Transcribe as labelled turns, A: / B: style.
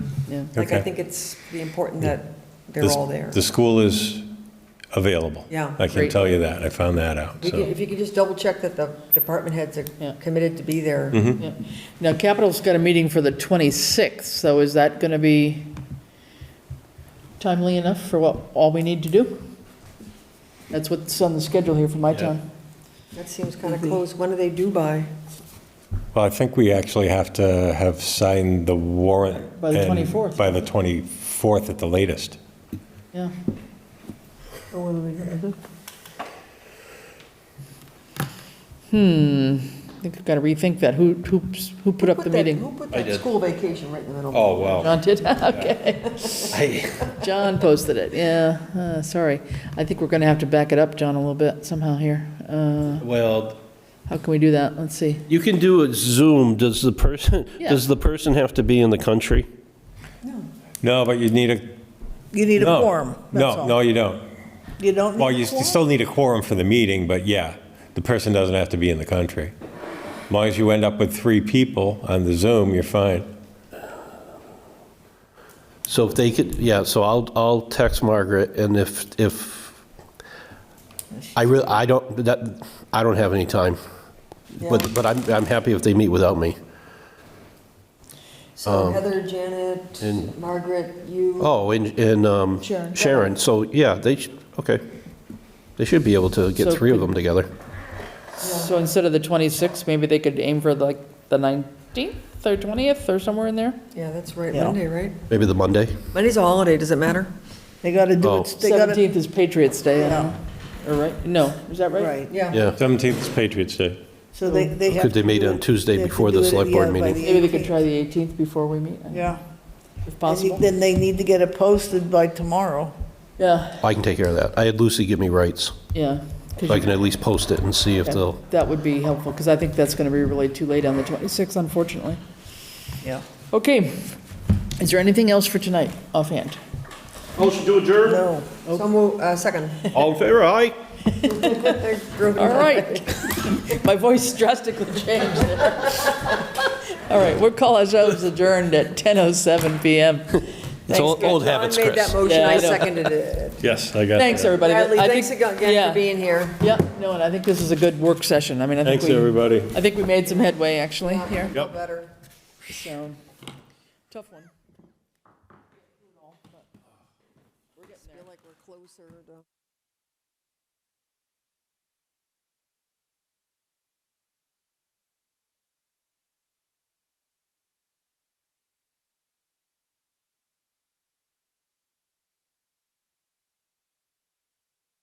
A: yeah.
B: Like, I
C: Okay.
B: think it's be important that they're
C: The-
B: all there.
C: The school is available.
B: Yeah.
C: I can
A: Great.
C: tell you that. I found that out,
B: You could-
C: so.
B: If you could just double check that the department heads
A: Yeah.
B: are committed to be there.
C: Mm-hmm.
A: yeah. Now, Capitol's got a meeting for the 26th, so is that going to be timely enough for what, all we need to do? That's what's on the schedule here for my town.
B: That seems kind of close. When do they due by?
C: Well, I think we actually have to have signed the warrant.
A: By the
C: and-
A: 24th.
C: By the 24th at the latest.
A: Yeah,
B: Oh,
A: hmm, I think I've got to rethink that. Who, who's- who put up the
B: Put that-
A: meeting?
B: Who put
C: I
B: that
C: did.
B: school vacation right in the middle?
C: Oh, wow.
A: John did, okay. John posted it, yeah, uh, sorry. I think we're going to have to back it up, John, a little bit somehow here. Uh,
D: Well,
A: How can we do that? Let's see.
D: you can do a Zoom. Does the person,
A: Yeah.
D: does the person have to be in the country?
C: No, but you need a.
E: You need a
C: no.
E: quorum, that's
C: No,
E: all.
C: no, you don't.
E: You don't
C: Well,
E: need
C: you
E: a
C: you
E: quorum?
C: still need a quorum for the meeting, but yeah, the person doesn't have to be in the country. As long as you end up with three people on the Zoom, you're fine.
D: So if they could, yeah, so I'll, I'll text Margaret and if, if, I really, I don't, that, I don't have any time. But, but I'm, I'm happy if they meet without me.
C: um,
B: So Heather, Janet,
D: and-
B: Margaret, you.
D: Oh, and, and um,
A: Sharon.
D: Sharon, so yeah, they, sh- okay. They should be able to get
A: So
D: three of
A: could-
D: them together.
A: So instead of the 26th, maybe they could aim for like the 19th or 20th or somewhere in there?
B: Yeah, that's right,
E: Yeah.
B: Monday, right?
D: Maybe the Monday?
B: Monday's a holiday, does it matter?
E: They gotta do
D: Oh.
E: it, they gotta,
A: 17th is Patriots Day, I don't know. Or right, no, is that right?
E: right.
B: Yeah.
D: Yeah.
C: 17th is Patriots Day.
E: So they, they have
D: Could they
E: to
D: meet
E: do
D: on
E: it-
D: Tuesday
E: they have to
D: before the
E: do it,
D: select board
E: yeah, by
D: meeting?
E: the
A: Maybe they could
E: 18th.
A: try the 18th before we meet, uh,
E: Yeah.
A: if
E: And you-
A: possible.
E: Then they need to get it posted by tomorrow.
A: Yeah,
D: I can take care of that. I had Lucy give me rights,
A: yeah. 'cause
D: so I
A: you-
D: can at least post it and see if
A: yeah,
D: they'll,
A: That would be helpful, because I think that's going to be really too late on the 26th, unfortunately.
E: Yeah.
A: Okay, is there anything else for tonight offhand?
D: Motion to adjourn.
E: No.
B: So move, uh, second.
D: All in favor, aye?
A: All right. My voice drastically changed there. All right, we'll call ourselves adjourned at 10:07 PM.
D: It's old old habits,
B: John made that
D: Chris.
B: motion,
A: Yeah, I
B: I
A: know.
B: seconded it.
C: Yes, I got
A: Thanks, everybody.
B: Bradley,
A: I
B: thanks
A: think-
B: again
A: yeah,
B: for being here.
A: Yeah, no, and I think this is a good work session. I mean, I think
C: Thanks,
A: we,
C: everybody.
A: I think we made some headway, actually, here,
B: Feel better.
A: so, tough one.
B: Feel like we're closer to.